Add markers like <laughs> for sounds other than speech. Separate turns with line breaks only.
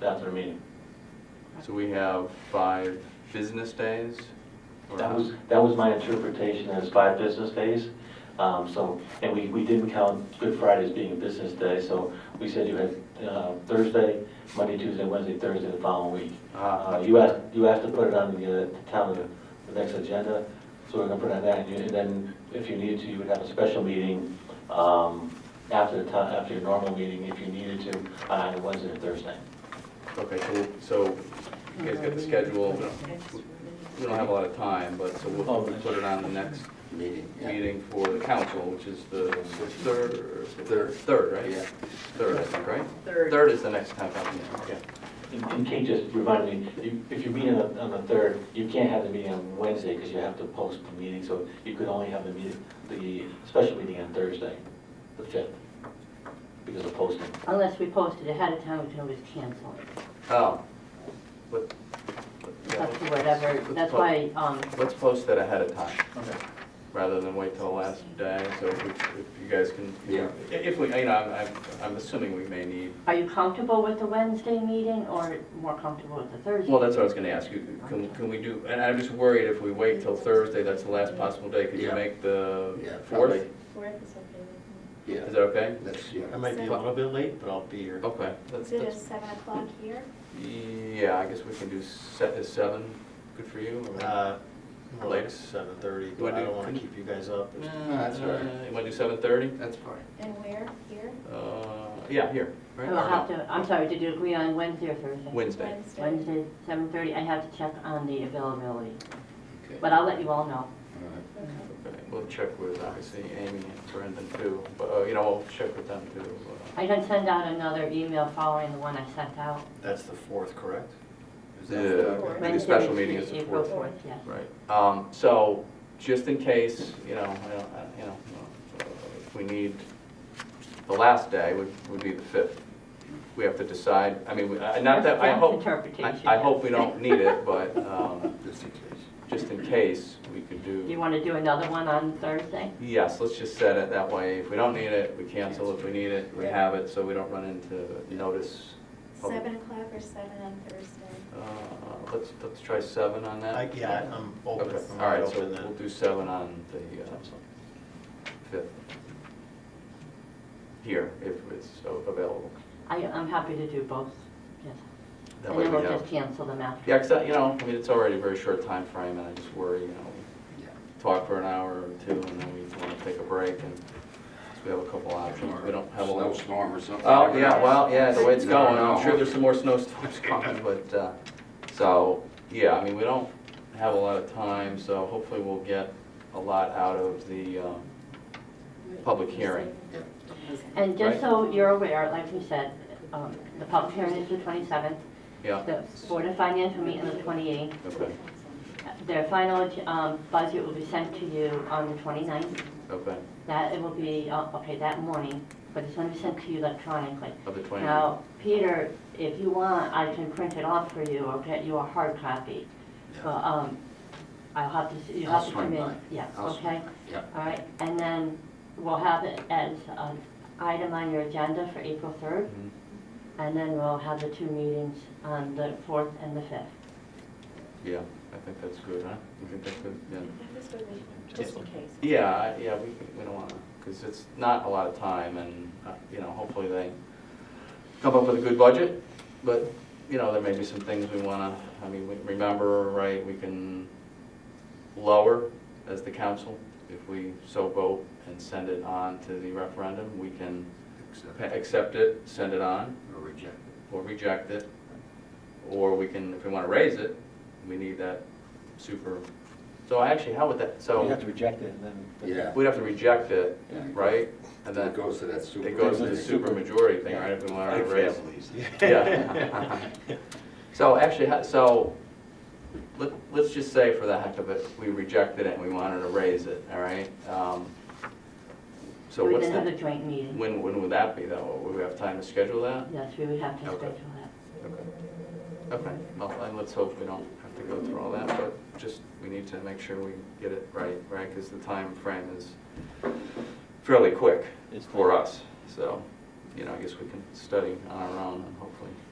That's our meeting.
So we have five business days? or-
That was, that was my interpretation as five business days. Um, so, and we, we didn't count Good Friday as being a business day, so we said you had, uh, Thursday, Monday, Tuesday, Wednesday, Thursday, the following week.
Ah.
Uh, you asked, you asked to put it on the, uh, town, the next agenda, so we're gonna put it on that, and you- and then if you needed to, you would have a special meeting, um, after the town, after your normal meeting, if you needed to, on either Wednesday or Thursday.
Okay, cool. So you guys get the schedule. We don't- We don't have a lot of time, but so we'll
Oh,
we'll put it on the next
meeting. yeah.
meeting for the council, which is the third,
Third.
third, right?
Yeah.
Third, I think, right?
Third.
Third is the next town council meeting, okay.
And- And Kate just reminded me, you- if you meet on the, on the third, you can't have the meeting on Wednesday because you have to post the meeting, so you could only have the meeting, the special meeting on Thursday, the fifth, because of posting.
Unless we posted ahead of time, we can always cancel it.
Oh. But- yeah,
That's
let's-
whatever,
let's
that's
po-
why, um,
Let's post that ahead of time,
Okay.
rather than wait till the last day, so if we- if you guys can.
Yeah.
If we, you know, I'm- I'm, I'm assuming we may need
are you comfortable with the Wednesday meeting or more comfortable with the Thursday?
Well, that's what I was gonna ask you, can, can we do, and I'm just worried if we wait till Thursday, that's the last possible day, could you
Yeah.
make the
Yeah,
fourth?
probably.
Fourth is okay with
Yeah,
Is that okay?
that's, yeah.
I might be a little bit late, but I'll be here.
Okay, that's,
me. Is it
that's,
at seven o'clock here?
yeah, I guess we can do set, is seven good for you? or-
Uh, More
Later.
like seven thirty,
Wanna
but I
do-
don't want
can-
to keep you guys up.
Uh,
that's all right.
You wanna do seven thirty?
That's fine.
And where? Here?
Uh, yeah, here, right?
We'll
Or
Oh, have
no?
to, I'm sorry, did you agree on Wednesday or Thursday?
Wednesday,
Wednesday.
Wednesday, seven thirty, I have to check on the availability,
Okay.
but I'll let you all know.
All right.
Okay.
okay, we'll check with, obviously, Amy and Brendan too, but, uh, you know, we'll check with them too. uh,
I can send out another email following the one I sent out.
That's the fourth, correct? Is that-
The,
Maybe
the
Wednesday,
special meeting is the
April
fourth.
fourth, yes.
Right, um, so, just in case, you know, I don't, I- you know, uh, if we need, the last day would, would be the fifth. We have to decide, I mean, we- I- not that, I
That's
hope, I,
interpretation,
I
yeah.
hope we don't need it, but, um,
Just in case.
just in case, we could
You
do,
want to do another one on Thursday?
yes, let's just set it that way. If we don't need it, we cancel. If we need it, we have it, so we don't run into notice. public-
Seven o'clock or seven on Thursday?
Uh, let's, let's try seven on that.
I- Yeah, I- I'm open.
Okay,
I'm
all right,
wide
so
open then.
we'll do seven on the uh, fifth. Here, if it's available.
I, I'm happy to do both, yes.
That
And
way
then
we
we'll just
have.
cancel them after.
Yeah, because, you know, I mean, it's already a very short time frame, and I just worry, you know,
Yeah.
we talk for an hour or two, and then we want to take a break, and so we have a couple options. Uh, We don't have a lot.
Snowstorm or something.
Oh, yeah, well, yeah, the way it's
You never
going, I'm
know.
sure there's some more snowstorms <laughs> coming, but, uh, so, yeah, I mean, we don't have a lot of time, so hopefully we'll get a lot out of the, um, public hearing.
And just
Right.
so you're aware, like we said, um, the public hearing is the 27th.
Yeah,
The Board of Finance will meet on the 28th.
okay,
Their final um, budget will be sent to you on the 29th.
okay,
That, it will be, uh, okay, that morning, but it's going to be sent to you electronically.
of the twenty.
Now, Peter, if you want, I can print it off for you or get you a hard copy. But um, I'll have to, you
I'll
have to come
swing
in.
by.
Yes,
I'll swing
okay?
Yeah.
All right, and then we'll have it as an item on your agenda for April 3rd.
Mhm.
And then we'll have the two meetings on the 4th and the 5th.
Yeah, I think that's good, huh? You think that's good, yeah?
Just in case.
Yeah, I- yeah, we, we don't wanna, because it's not a lot of time, and, uh, you know, hopefully they come up with a good budget, but, you know, there may be some things we wanna, I mean, we remember, right, we can lower as the council, if we so vote and send it on to the referendum, we can
Accept
pa- accept it, send it on,
Or reject it.
or reject it, or we can, if we wanna raise it, we need that super, so actually, how would that, so.
You have to reject it and then.
Yeah.
We'd have to reject it, right? And
It
then
goes to that super.
it goes to the supermajority thing, right, if we want to raise.
<laughs>
Yeah. <laughs> So actually, ha- so, let, let's just say for the heck of it, we rejected it and we wanted to raise it, all right? Um, So
We
what's
then have a
the,
joint meeting.
when, when would that be though? Would we have time to schedule that?
Yes, we would have to
Okay.
schedule that.
Okay. Okay, well, and let's hope we don't have to go through all that, but just, we need to make sure we get it right, right? Because the time frame is fairly quick
It's
for us, so, you know, I guess we can study on our own and hopefully